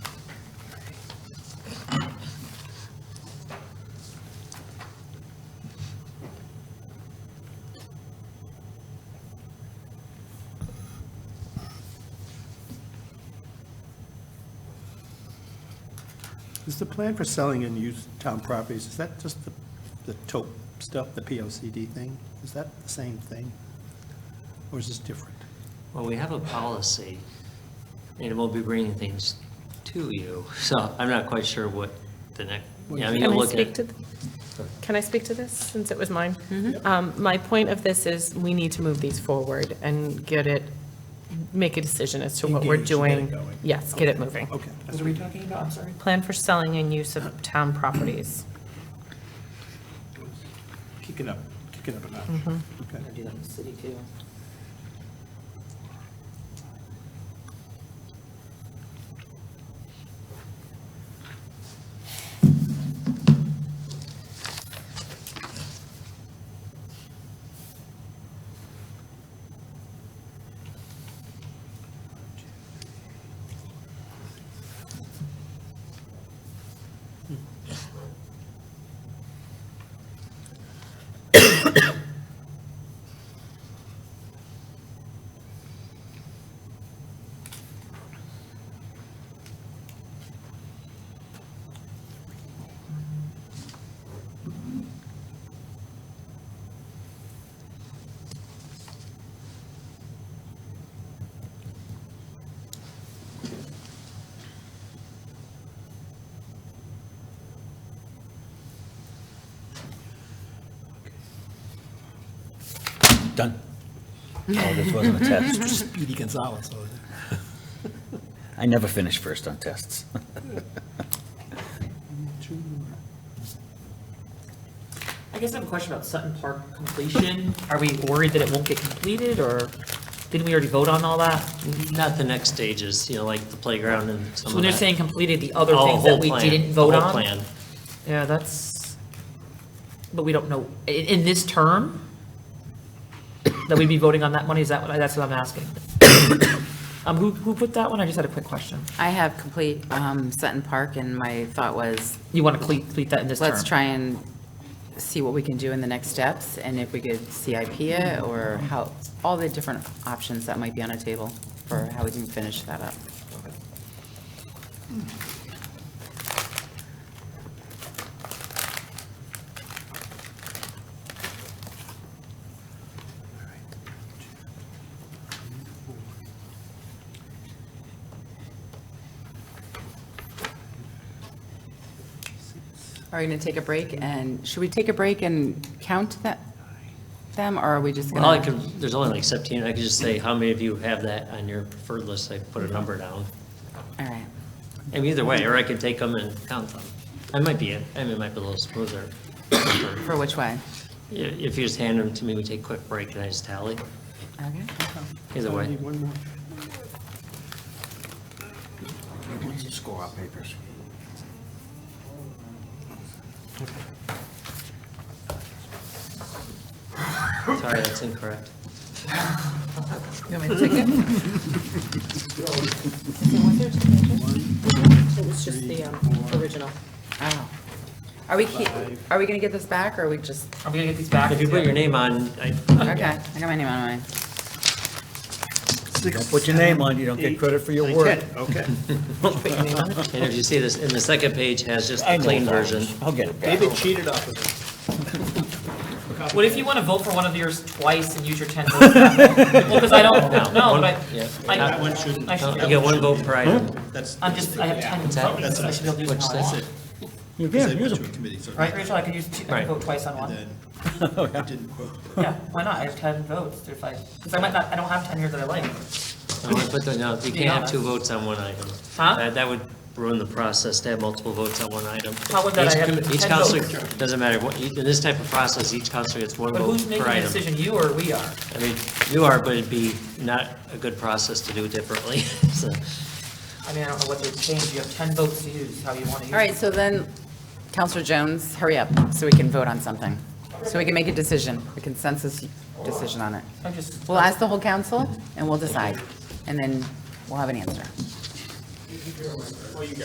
Is the plan for selling and used town properties, is that just the, the tote stuff, the POCD thing? Is that the same thing? Or is this different? Well, we have a policy, and we'll be bringing things to you, so I'm not quite sure what the next, yeah, I mean, Can you'll I look speak at. to, th- can I speak to this, since it was mine? Mm-hmm. Um, My point of this is, we need to move these forward and get it, make a decision as to what we're Engage, get it doing. going. Yes, get it moving. Okay. What are we talking about? I'm sorry. Plan for selling and use of town properties. Kick it up, kick it up a notch. Mm-hmm. Okay. I'm gonna do that in the city too. Done. Oh, this wasn't a test. Speedy Gonzalez over there. I never finish first on tests. I guess I have a question about Sutton Park completion. Are we worried that it won't get completed, or didn't we already vote on all that? Not the next stages, you know, like the playground and some So of when they're that. saying completed, the other Oh, things that whole we plan, didn't the vote whole on? plan. Yeah, that's, but we don't know, i- in this term, that we'd be voting on that money, is that what, I- that's what I'm asking? Um, who, who put that one? I just had a quick question. I have complete um, Sutton Park, and my thought was, You want to complete that in this term? let's try and see what we can do in the next steps, and if we could CIP it, or how, all the different options that might be on a table for how we can finish that up. Are we going to take a break, and should we take a break and count that, them, or are we just going Well, to? I could, there's only like 17, I could just say, how many of you have that on your preferred list? I put a number down. All right, I mean, either way, or I could take them and count them. I might be, I mean, it might be a little smoother. for which way? Yeah, If you just hand them to me, we take a quick break and I just tally. Okay, Either I way. need one more. When's the score on papers? Sorry, that's incorrect. It's just the um, original. oh. Are we, keep- are we going to get this back, or are we just, Are we gonna get these back? If you put your name on, I, okay, I got my name on mine. Don't put your name on, you don't get credit for your work. Okay. and if you see this, and the second page has just I the know clean that. version. I'll get it back. David cheated off of it. What if you want to vote for one of yours twice and use your 10 votes? Well, because I don't, No, no, one- but I, yeah. I- That one shouldn't- I You should, get one vote per item. That's. I'm just, I have 10 votes, I should be able to use Which them all that's I it. want. You Because I can use went to a them. committee, so Right, Rachel, I could use, two- I Right. could vote twice on one. then it didn't quote. Yeah, why not? I have 10 votes, if I, because I might not, I don't have 10 here that I like. I want to put that, no, you can't have two votes on one item. Huh? That- That would ruin the process to have multiple votes on one item. How would that- Each I have commi- Each 10 counselor, votes. doesn't matter, what- each- in this type of process, each counselor gets one But vote who's making per the item. decision, you or we are? I mean, you are, but it'd be not a good process to do differently, so. I mean, I don't know what the exchange, you have 10 votes to use, how you want to use. All right, so then, Counselor Jones, hurry up, so we can vote on something. So we can make a decision, a consensus decision on it. I'm just, We'll ask the whole council, and we'll decide, and then we'll have an answer.